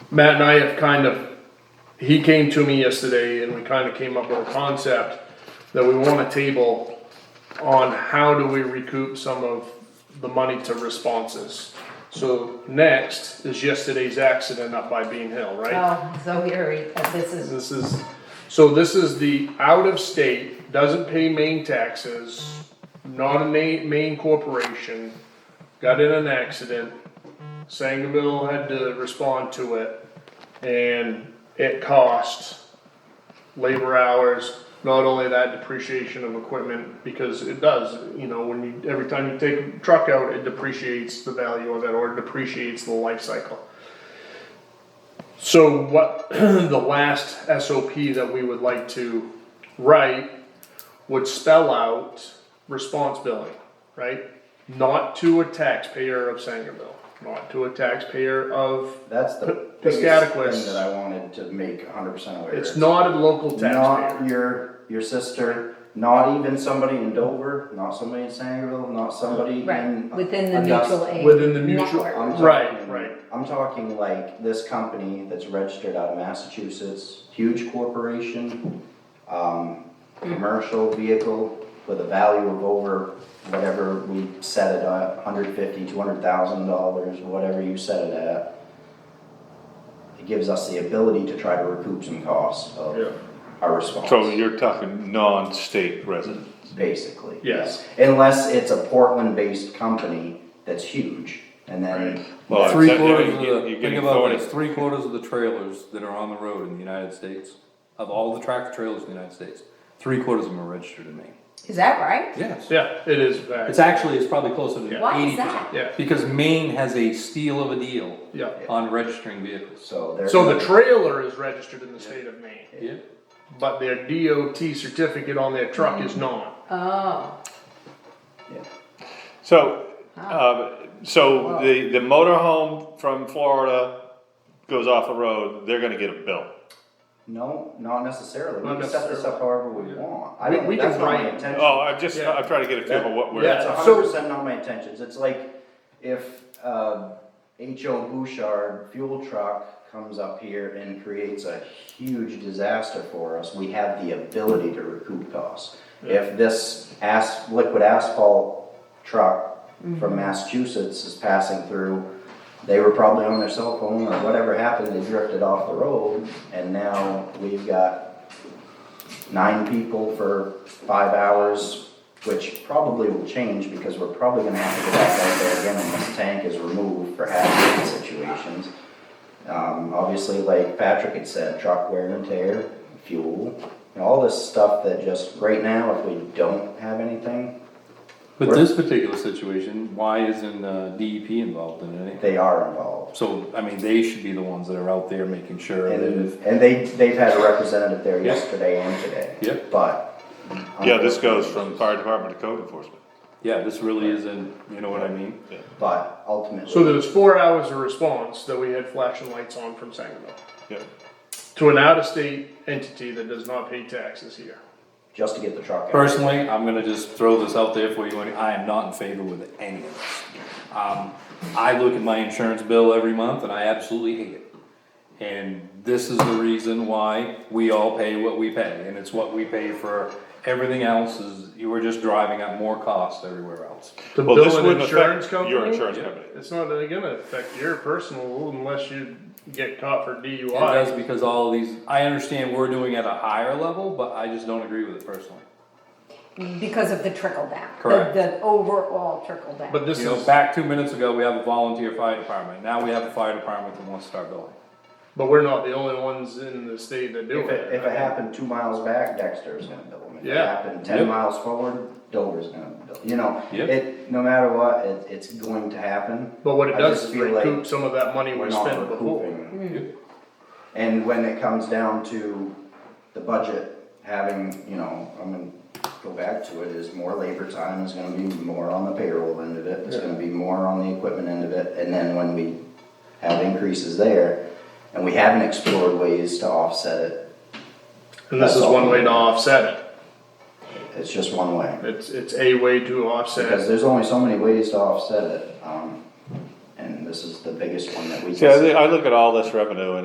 Matt and I have kind of, he came to me yesterday and we kind of came up with a concept that we want a table on how do we recoup some of the money to responses. So next is yesterday's accident up by Bean Hill, right? Oh, so here, we- this is, This is, so this is the out of state, doesn't pay main taxes, not a na- main corporation, got in an accident. Sangerville had to respond to it, and it cost labor hours, not only that depreciation of equipment, because it does, you know, when you, every time you take a truck out, it depreciates the value of it, or depreciates the life cycle. So what, the last SOP that we would like to write would spell out response billing, right? Not to a taxpayer of Sangerville, not to a taxpayer of, That's the Piscataquis. biggest thing that I wanted to make hundred percent aware. it's not a local Not taxpayer. your, your sister, not even somebody in Dover, not somebody in Sangerville, not somebody in. right, within the Augusta. mutual aid. Within the mutual- I'm network. talking- Right, right. I'm talking like this company that's registered out of Massachusetts, huge corporation, um, Hmm. commercial vehicle with a value of over whatever we set it at, hundred fifty, two hundred thousand dollars, whatever you set it at. It gives us the ability to try to recoup some costs Yeah. of our response. So you're talking non-state resident. Basically. Yes. Unless it's a Portland-based company that's huge, and then Well, Three except, you know, quarters of you- the, you're think getting about authority. this, three quarters of the trailers that are on the road in the United States, of all the tractor trailers in the United States, three quarters of them are registered in Maine. Is that right? Yes. Yeah, it is back, It's actually, it's probably closer to Why is eighty percent. that? yeah, Because Maine has a steal of a deal yeah. on registering vehicles. So there's. So the trailer is registered in the state of Maine, Yeah. but their DOT certificate on their truck is not. Oh, So, uh, so the, the motor home from Florida goes off the road, they're gonna get a bill. No, not necessarily. Not We can set this necessarily. up however we want. I We- don't, we that's can not my write- intention. Oh, I'm just, Yeah. I'm trying to get a feel of what we're. That's Yeah, hundred percent not my intentions. It's like if, uh, H.O. Bouchard fuel truck comes up here and creates a huge disaster for us, we have the ability to recoup costs. If this as, liquid asphalt truck from Massachusetts is passing through, they were probably on their cell phone or whatever happened, they drifted off the road, and now we've got nine people for five hours, which probably will change because we're probably gonna have to go back out there again unless this tank is removed for hazard situations. Um, obviously, like Patrick had said, truck wear and tear, fuel, and all this stuff that just, right now, if we don't have anything, But this particular situation, why isn't uh, DEP involved in it? they are involved. So, I mean, they should be the ones that are out there making sure that And, if, and they, they've had a representative there Yeah. yesterday and today. Yeah. But. Yeah, this goes from fire department to code enforcement. yeah, this really isn't, you know what I mean? But ultimately. So there's four hours of response that we had flashing lights on from Sangerville Yeah. to an out-of-state entity that does not pay taxes here. just to get the truck out. Personally, I'm gonna just throw this out there for you, and I am not in favor with any of this. Um, I look at my insurance bill every month and I absolutely hate it. And this is the reason why we all pay what we pay, and it's what we pay for everything else is, you were just driving up more costs everywhere else. To Well, this bill an wouldn't insurance affect your company, insurance company. it's not really gonna affect your personal unless you get caught for It does DUI. because all of these, I understand we're doing at a higher level, but I just don't agree with it personally. because of the trickle down. the- Correct. The overall trickle down. But this You know, is, back two minutes ago, we have a volunteer fire department, now we have a fire department that wants to start building. but we're not the only ones in the state that do If it, if it it. happened two miles back, Dexter's gonna bill them. If it Yeah. happened ten Yep. miles forward, Dover's gonna bill, you know, Yep. it, no matter what, it, it's going to happen. But what it I does just is feel like recoup some of that money We're we not spent before. recouping. Yep. And when it comes down to the budget, having, you know, I'm gonna go back to it, is more labor time, is gonna be more on the payroll end of it, it's gonna be more on the equipment end of it, and then when we have increases there, and we haven't explored ways to offset it, And this is That's all. one way to offset It's just one way, it. It's, it's a way to offset because it. there's only so many ways to offset it, um, and this is the biggest one that we can. See, I, thi- I look at all this revenue and